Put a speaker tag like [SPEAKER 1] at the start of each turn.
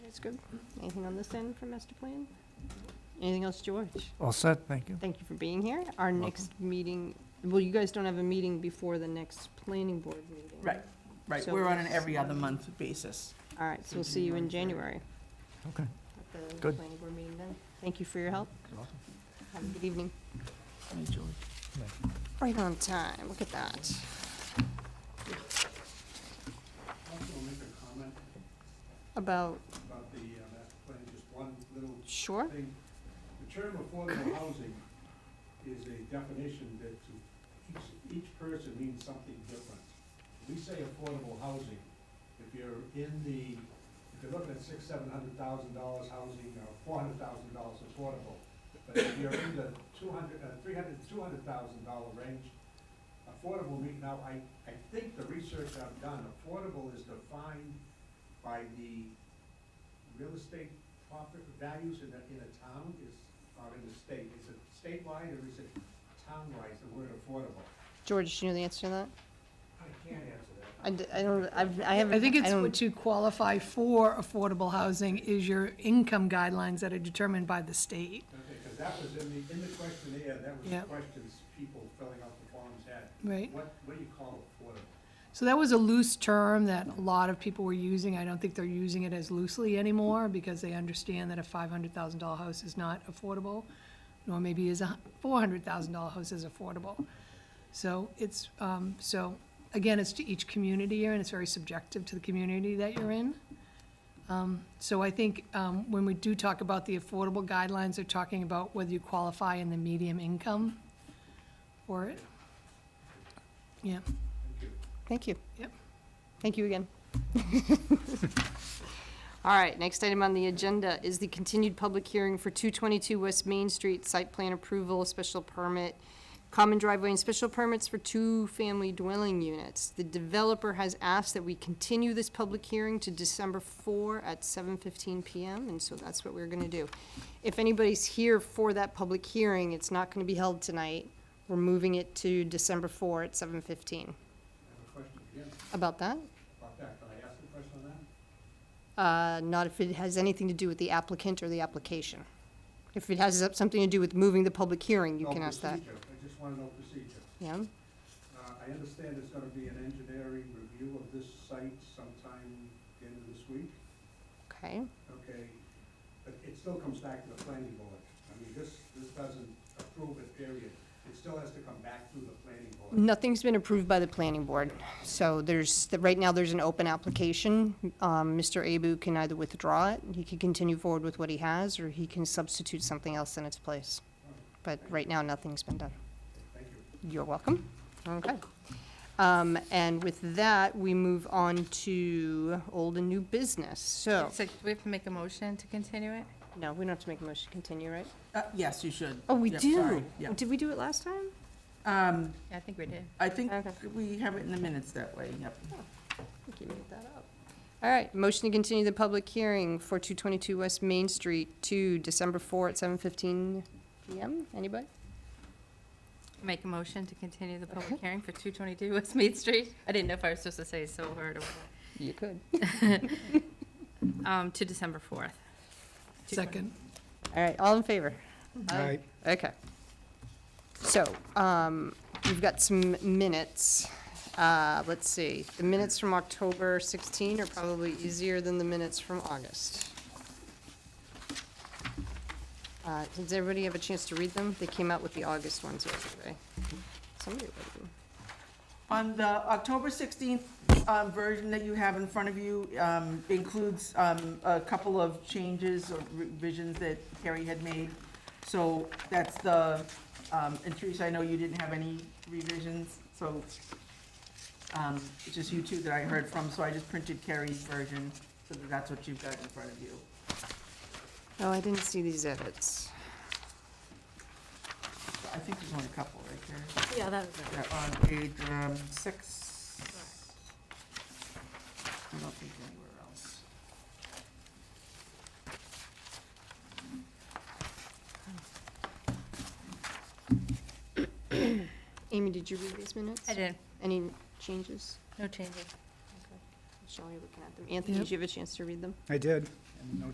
[SPEAKER 1] That's good. Anything on this end for master plan? Anything else, George?
[SPEAKER 2] All set, thank you.
[SPEAKER 1] Thank you for being here. Our next meeting, well, you guys don't have a meeting before the next planning board meeting.
[SPEAKER 3] Right, right,
[SPEAKER 1] So
[SPEAKER 3] we're on an
[SPEAKER 1] it's-
[SPEAKER 3] every other month basis.
[SPEAKER 1] All right, so we'll see you in January.
[SPEAKER 2] Okay.
[SPEAKER 1] at the
[SPEAKER 2] Good.
[SPEAKER 1] planning board meeting then. Thank you for your help. Have a good evening.
[SPEAKER 3] Hey, George.
[SPEAKER 1] Right on time, look at that.
[SPEAKER 4] Also make a comment
[SPEAKER 1] About,
[SPEAKER 4] about the uh, master plan, just one little
[SPEAKER 1] sure,
[SPEAKER 4] thing. The term affordable housing is a definition that to each, each person means something different. We say affordable housing, if you're in the, if you're looking at six, seven hundred thousand dollars housing, or four hundred thousand dollars affordable. But if you're in the two hundred, uh, three hundred, two hundred thousand dollar range, affordable mean, now, I, I think the research I've done, affordable is defined by the real estate profit values in a, in a town is, or in a state, is it statewide or is it townwide, the word affordable?
[SPEAKER 1] George, do you know the answer to that?
[SPEAKER 4] I can't answer that.
[SPEAKER 1] I d- I don't, I've, I haven't.
[SPEAKER 5] I think it's
[SPEAKER 1] don't-
[SPEAKER 5] what you qualify for affordable housing is your income guidelines that are determined by the state.
[SPEAKER 4] Okay, because that was in the, in the questionnaire, that was the
[SPEAKER 5] Yeah.
[SPEAKER 4] questions people filling out the forms had.
[SPEAKER 5] Right.
[SPEAKER 4] What, what do you call affordable?
[SPEAKER 5] So that was a loose term that a lot of people were using. I don't think they're using it as loosely anymore because they understand that a five hundred thousand dollar house is not affordable, nor maybe is a four hundred thousand dollar house is affordable. So it's, um, so, again, it's to each community here, and it's very subjective to the community that you're in. Um, so I think, um, when we do talk about the affordable guidelines, they're talking about whether you qualify in the medium income for it. Yeah.
[SPEAKER 4] Thank you.
[SPEAKER 1] Thank you.
[SPEAKER 5] Yep.
[SPEAKER 1] Thank you again. All right, next item on the agenda is the continued public hearing for 222 West Main Street Site Plan Approval, Special Permit, Common Driveway and Special Permits for two-family dwelling units. The developer has asked that we continue this public hearing to December 4 at 7:15 PM, and so that's what we're going to do. If anybody's here for that public hearing, it's not going to be held tonight. We're moving it to December 4 at 7:15.
[SPEAKER 4] I have a question again
[SPEAKER 1] About that?
[SPEAKER 4] about that. Can I ask a question on that?
[SPEAKER 1] Uh, Not if it has anything to do with the applicant or the application. If it has something to do with moving the public hearing, you
[SPEAKER 4] No,
[SPEAKER 1] can ask that.
[SPEAKER 4] procedure. I just want to know procedure.
[SPEAKER 1] Yeah?
[SPEAKER 4] Uh, I understand there's going to be an engineering review of this site sometime the end of this week.
[SPEAKER 1] Okay.
[SPEAKER 4] okay, but it still comes back to the planning board. I mean, this, this doesn't approve it, period. It still has to come back through the planning board.
[SPEAKER 1] Nothing's been approved by the planning board. So there's, right now, there's an open application. Um, Mr. Abu can either withdraw it, he can continue forward with what he has, or he can substitute something else in its place. But right now, nothing's been done.
[SPEAKER 4] Thank you.
[SPEAKER 1] You're welcome. Okay. Um, And with that, we move on to old and new business. So.
[SPEAKER 6] So do we have to make a motion to continue it?
[SPEAKER 1] No, we don't have to make a motion to continue, right?
[SPEAKER 3] Uh, Yes, you should.
[SPEAKER 1] Oh, we
[SPEAKER 3] Yep,
[SPEAKER 1] do.
[SPEAKER 3] sorry, yeah.
[SPEAKER 1] Oh, Did we do it last time?
[SPEAKER 3] Um,
[SPEAKER 6] I think we did.
[SPEAKER 3] I think
[SPEAKER 1] Okay.
[SPEAKER 3] we have it in the minutes that way, yep.
[SPEAKER 1] I think you made that up. All right, motion to continue the public hearing for 222 West Main Street to December 4 at 7:15 PM. Anybody?
[SPEAKER 6] Make a motion to continue the public hearing for 222 West Main Street? I didn't know if I was supposed to say so hard or what.
[SPEAKER 1] You could.
[SPEAKER 6] Um, To December 4th.
[SPEAKER 5] Second.
[SPEAKER 1] All right, all in favor?
[SPEAKER 2] Aye.
[SPEAKER 1] Okay. So, um, we've got some minutes. Uh, let's see, the minutes from October 16 are probably easier than the minutes from August. Uh, does everybody have a chance to read them? They came out with the August ones yesterday. Somebody read them.
[SPEAKER 3] On the October 16th um, version that you have in front of you um, includes um, a couple of changes or revisions that Carrie had made. So that's the, um, and Teresa, I know you didn't have any revisions, so um, it's just you two that I heard from, so I just printed Carrie's version, so that that's what you've got in front of you.
[SPEAKER 1] Oh, I didn't see these edits.
[SPEAKER 3] I think there's only a couple right there.
[SPEAKER 6] Yeah, that was
[SPEAKER 3] Yeah, on page um, six. I don't think anywhere else.
[SPEAKER 1] Amy, did you read these minutes?
[SPEAKER 6] I did.
[SPEAKER 1] Any changes?
[SPEAKER 6] No changes.
[SPEAKER 1] Shelley looking at them. Anthony, did you have a chance to read them?
[SPEAKER 4] I did, and no